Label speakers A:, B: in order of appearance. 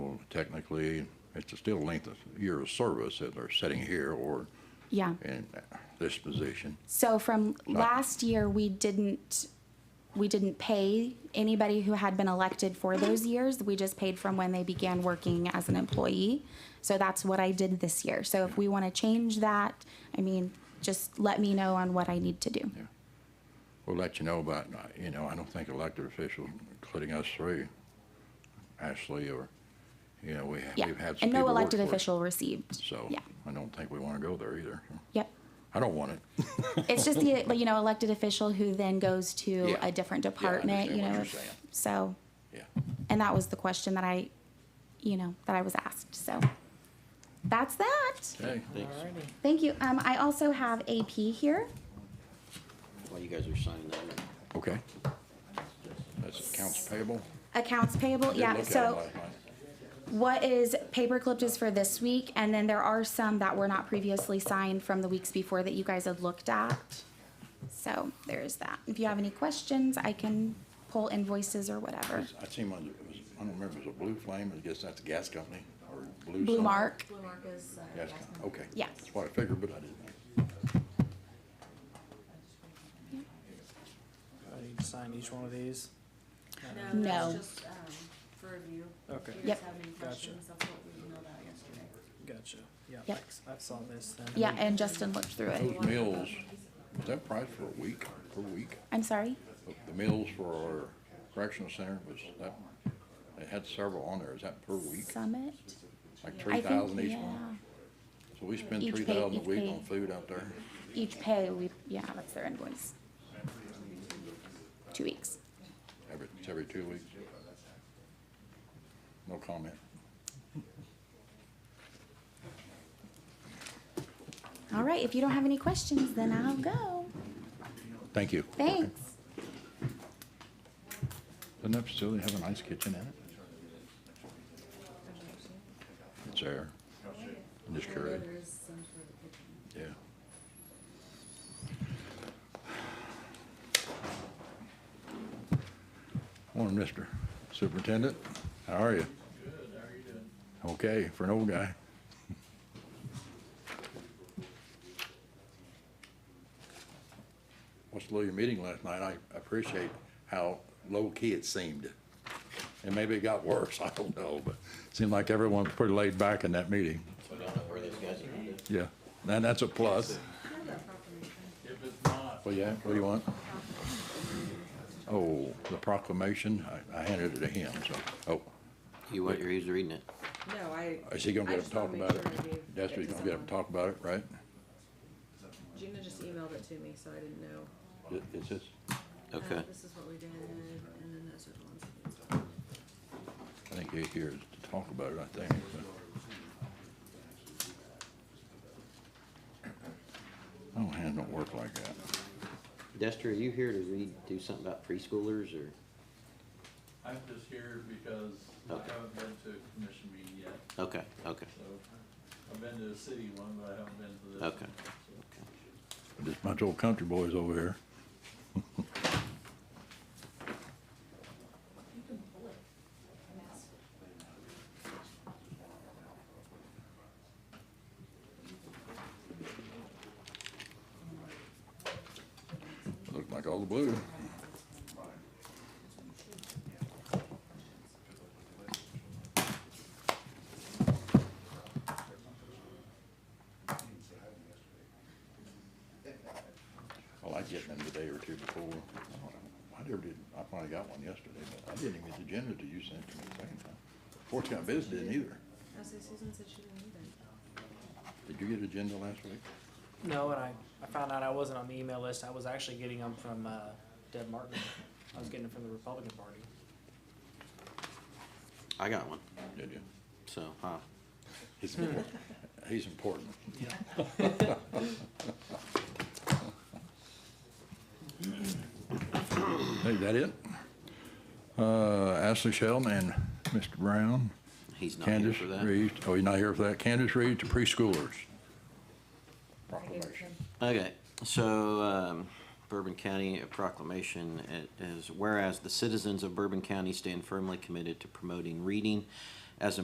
A: technically, it's still length of year of service that they're sitting here or
B: Yeah.
A: in this position.
B: So from last year, we didn't, we didn't pay anybody who had been elected for those years. We just paid from when they began working as an employee. So that's what I did this year. So if we want to change that, I mean, just let me know on what I need to do.
A: We'll let you know about, you know, I don't think elected officials, including us three, Ashley, or, you know, we have,
B: Yeah.
A: we've had some
B: And
A: people
B: no
A: work
B: elected
A: for us,
B: official received.
A: So
B: Yeah.
A: I don't think we want to go there either.
B: Yep.
A: I don't want it.
B: It's just the, you know, elected official who then goes to
A: Yeah.
B: a different
A: Yeah, I
B: department,
A: understand
B: you
A: what
B: know.
A: you're
B: if-
A: saying.
B: So,
A: Yeah.
B: and that was the question that I, you know, that I was asked. So that's that.
A: Okay.
C: Alrighty.
B: Thank you. Um, I also have AP here.
C: While you guys are signing that,
A: Okay. That's accounts payable.
B: Accounts payable,
A: Did
B: yeah,
A: look at it
B: so
A: last night.
B: what is paper clipped is for this week, and then there are some that were not previously signed from the weeks before that you guys had looked at. So there's that. If you have any questions, I can pull invoices or whatever.
A: I seen one, it was, I don't remember, it was a Blue Flame, I guess that's a gas company, or Blue.
B: Blue
A: something.
B: Mark,
D: Blue mark is, uh,
A: Gas,
D: yes.
A: company. okay.
B: Yeah.
A: That's what I figured, but I didn't. know.
E: I need to sign each one of these.
B: No.
D: No, that's just, um, for review.
E: Okay.
D: If you guys
B: Yep.
D: have any
E: Gotcha.
D: questions, that's what we emailed out yesterday.
E: Gotcha. Yeah,
B: Yep.
E: thanks. I saw this then.
B: yeah, and Justin looked through it.
A: Those mills, is that price for a week, per week?
B: I'm sorry?
A: The mills for our correctional center was that, they had several on there, is that per week?
B: Summit?
A: Like
B: I
A: three thousand
B: think,
A: each
B: yeah.
A: one? So we spend
B: Each
A: three
B: pay-
A: thousand a
B: each
A: week
B: pay.
A: on food out there?
B: Each pay, we, yeah, that's their invoice. Two weeks.
A: Every, it's every two weeks. No comment.
B: All right, if you don't have any questions, then I'll go.
A: Thank you.
B: Thanks.
A: Doesn't that facility have a nice kitchen in it? It's there. I'm just curious,
D: There is some for the
A: yeah.
D: kitchen.
A: Morning, Mr. Superintendent. How are you? Good, how are you doing? Okay, for an old guy. Watched a little meeting last night. I appreciate how low-key it seemed. And maybe it got worse, I don't know, but it seemed like everyone was pretty laid back in that meeting.
C: so I don't know where those guys are headed.
A: Yeah, and that's a plus.
D: Have that proclamation.
A: Well, yeah, what do you want? Oh, the proclamation, I, I handed it to him, so, oh,
C: You want your ears reading it?
D: No, I.
A: is he gonna
D: I
A: get up and
D: just wanna
A: talk
D: make
A: about
D: sure I
A: it?
D: gave
A: That's what
D: it
A: he's
D: to
A: gonna get up and
D: someone.
A: talk about it, right?
D: Gina just emailed it to me, so I didn't know.
A: It- It's just,
D: Uh,
C: Okay.
D: This is what we did, and then those are the ones.
A: I think he here is to talk about it, I think. but- Oh, hands don't work like that.
C: Dester, are you here to read, do something about preschoolers or?
F: I'm just here because I
C: Okay.
F: haven't been to a commission meeting yet,
C: Okay, okay,
F: so I've been to a city one, but I haven't been to this.
C: Okay.
F: one, so.
A: Just a bunch of old country boys over here. Looked like all the blue. Well, I get them the day or two before. I never did, I finally got one yesterday, but I didn't even get the agenda to use that to me the second time. Fourth time, Biz didn't either.
D: I say Oh, Susan said she didn't need it.
A: Did you get an agenda last week?
E: No, and I, I found out I wasn't on the email list. I was actually getting them from, uh, Deb Martin. I was getting them from the Republican Party.
C: I got one,
A: Did you?
C: so, huh,
A: He's important. He's important. Hey, that it? Uh, Ashley Sheldon and Mr. Brown.
C: he's not here
A: Candace
C: for that.
A: Reed, oh, you're not here for that. Candace Reed to preschoolers. Proclamation.
C: Okay, so um, Bourbon County a proclamation it is whereas the citizens of Bourbon County stand firmly committed to promoting reading as a